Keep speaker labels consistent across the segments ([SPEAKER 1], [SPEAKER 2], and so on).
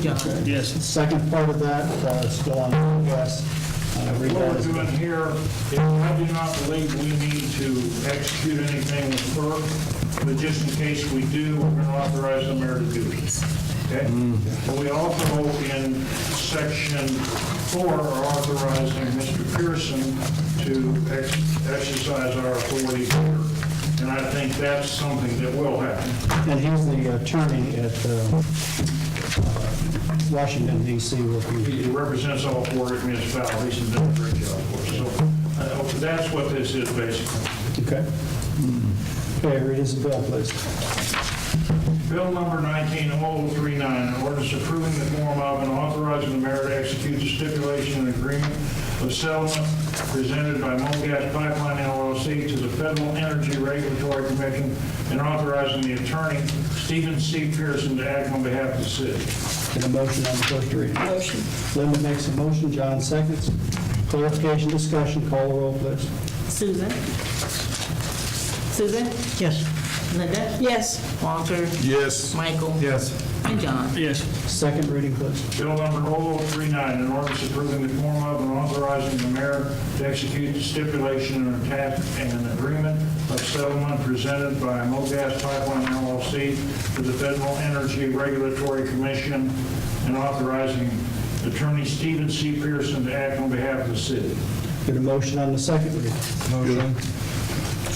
[SPEAKER 1] John.
[SPEAKER 2] Yes.
[SPEAKER 3] The Second part of that, uh, is still on progress. Uh,
[SPEAKER 2] What we're
[SPEAKER 3] revised-
[SPEAKER 2] doing here, I do not believe we need to execute anything with FERC, but just in case we do, we're going to authorize the mayor to do it. Okay? But We also, in section four, are authorizing Mr. Pearson to ex- exercise our authority here. And I think that's something that will happen.
[SPEAKER 3] And he's the attorney at uh, uh, Washington DC working.
[SPEAKER 2] He represents all four municipalities and does a great job for us. So uh, that's what this is basically.
[SPEAKER 3] Okay? Hmm. Okay, read his bill, please.
[SPEAKER 2] Bill number 19039, an ordinance approving the form of and authorizing the mayor to execute the stipulation and agreement of settlement presented by MoGas Pipeline LLC to the Federal Energy Regulatory Commission and authorizing the attorney, Stephen C. Pearson, to act on behalf of the city.
[SPEAKER 3] Get a motion on the first reading.
[SPEAKER 1] Motion.
[SPEAKER 3] Linda makes a motion, John seconds. Clarification, discussion, call the roll, please.
[SPEAKER 1] Susan? Susan? Yes. Linda? Yes. Walter?
[SPEAKER 4] Yes.
[SPEAKER 1] Michael?
[SPEAKER 4] Yes.
[SPEAKER 1] And John?
[SPEAKER 2] Yes.
[SPEAKER 3] Second reading, please.
[SPEAKER 2] Bill number 0039, an ordinance approving the form of and authorizing the mayor to execute the stipulation and attach an agreement of settlement presented by MoGas Pipeline LLC to the Federal Energy Regulatory Commission and authorizing Attorney Stephen C. Pearson to act on behalf of the city.
[SPEAKER 3] Get a motion on the second reading.
[SPEAKER 4] Motion.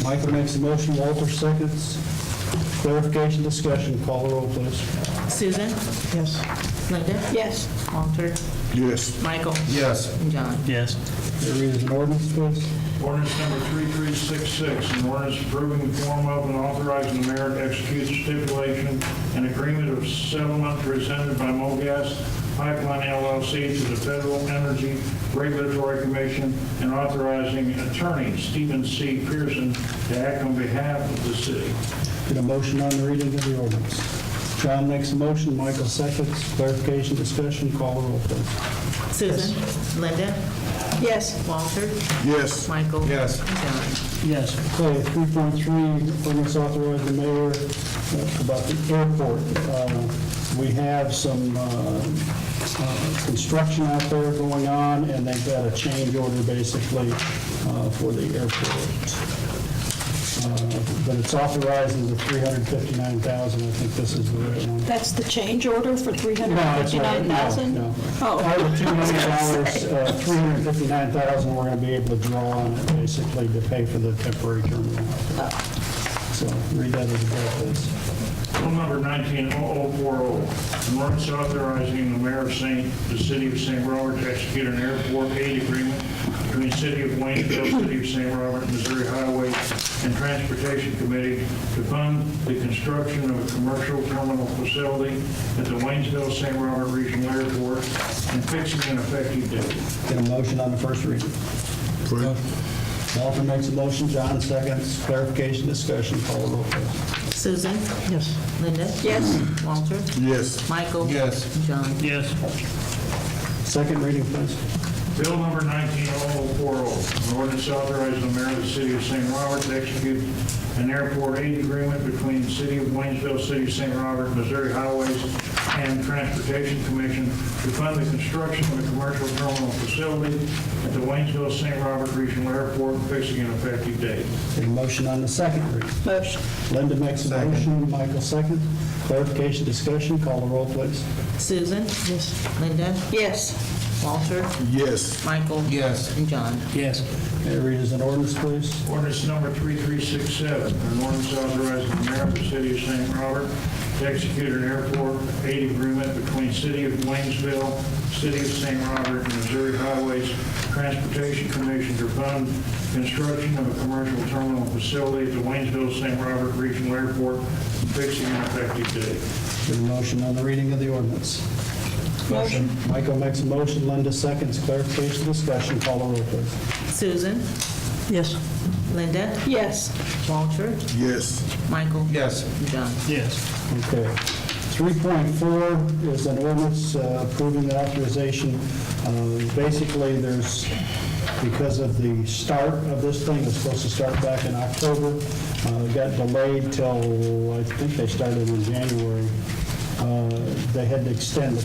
[SPEAKER 3] Michael makes a motion, Walter seconds. Clarification, discussion, call the roll, please.
[SPEAKER 1] Susan? Yes. Linda? Yes. Walter?
[SPEAKER 4] Yes.
[SPEAKER 1] Michael?
[SPEAKER 4] Yes.
[SPEAKER 1] And John?
[SPEAKER 5] Yes.
[SPEAKER 3] Can you read as an ordinance, please?
[SPEAKER 2] Ordinance number 3366, an ordinance approving the form of and authorizing the mayor to execute stipulation and agreement of settlement presented by MoGas Pipeline LLC to the Federal Energy Regulatory Commission and authorizing attorney Stephen C. Pearson to act on behalf of the city.
[SPEAKER 3] Get a motion on the reading of the ordinance. John makes a motion, Michael seconds. Clarification, discussion, call the roll, please.
[SPEAKER 1] Susan? Linda? Yes. Walter?
[SPEAKER 4] Yes.
[SPEAKER 1] Michael?
[SPEAKER 4] Yes.
[SPEAKER 1] And John?
[SPEAKER 3] Yes. Okay, 3.3, ordinance authorizing the mayor uh, about the airport. Uh, We have some uh, uh, construction out there going on, and they've got a change order basically uh, for the airport. Uh, But it's authorizing the 359,000, I think this is the right one.
[SPEAKER 6] That's the change order for
[SPEAKER 3] No, it's not.
[SPEAKER 6] 359,000?
[SPEAKER 3] No, no.
[SPEAKER 6] Oh,
[SPEAKER 3] Out of the $2 million, uh, 359,000, we're going to be able to draw on it basically to pay for the temporary terminal. out there. So read that as a bill, please.
[SPEAKER 2] Bill number 190040, an ordinance oh, authorizing the mayor of St., the city of St. Robert to execute an airport aid agreement between the city of Waynesville, city of St. Robert, Missouri Highway and Transportation Committee to fund the construction of a commercial terminal facility at the Waynesville, St. Robert Regional Airport and fixing an effective date.
[SPEAKER 3] Get a motion on the first reading. Walter makes a motion, John seconds. Clarification, discussion, call the roll, please.
[SPEAKER 1] Susan? Yes. Linda? Yes. Walter?
[SPEAKER 4] Yes.
[SPEAKER 1] Michael?
[SPEAKER 4] Yes.
[SPEAKER 1] And John?
[SPEAKER 5] Yes.
[SPEAKER 3] Second reading, please.
[SPEAKER 2] Bill number 190040, an ordinance authorizing the mayor of the city of St. Robert to execute an airport aid agreement between the city of Waynesville, city of St. Robert, Missouri Highways and Transportation Commission to fund the construction of a commercial terminal facility at the Waynesville, St. Robert Regional Airport, fixing an effective date.
[SPEAKER 3] Get a motion on the second reading.
[SPEAKER 6] motion.
[SPEAKER 3] Linda makes a motion, Michael seconds. Clarification, discussion, call the roll, please.
[SPEAKER 1] Susan? Yes. Linda?
[SPEAKER 6] Yes,
[SPEAKER 1] Walter?
[SPEAKER 4] Yes.
[SPEAKER 1] Michael?
[SPEAKER 4] Yes.
[SPEAKER 1] And John?
[SPEAKER 5] Yes.
[SPEAKER 3] May I read as an ordinance, please?
[SPEAKER 2] Ordinance number 3367, an ordinance authorizing the mayor of the city of St. Robert to execute an airport aid agreement between city of Waynesville, city of St. Robert, and Missouri Highways Transportation Commission to fund construction of a commercial terminal facility at the Waynesville, St. Robert Regional Airport, and fixing an effective date.
[SPEAKER 3] Get a motion on the reading of the ordinance.
[SPEAKER 6] Motion.
[SPEAKER 3] Michael makes a motion, Linda seconds, clarification, discussion, call the roll, please.
[SPEAKER 1] Susan? Yes. Linda?
[SPEAKER 6] yes,
[SPEAKER 1] Walter?
[SPEAKER 4] Yes.
[SPEAKER 1] Michael?
[SPEAKER 4] Yes.
[SPEAKER 1] And John?
[SPEAKER 5] Yes.
[SPEAKER 3] Okay. 3.4 is an ordinance uh, approving the authorization. Uh, Basically, there's, because of the start of this thing, it's supposed to start back in October, uh, it got delayed till, I think they started in January. Uh, They had to extend the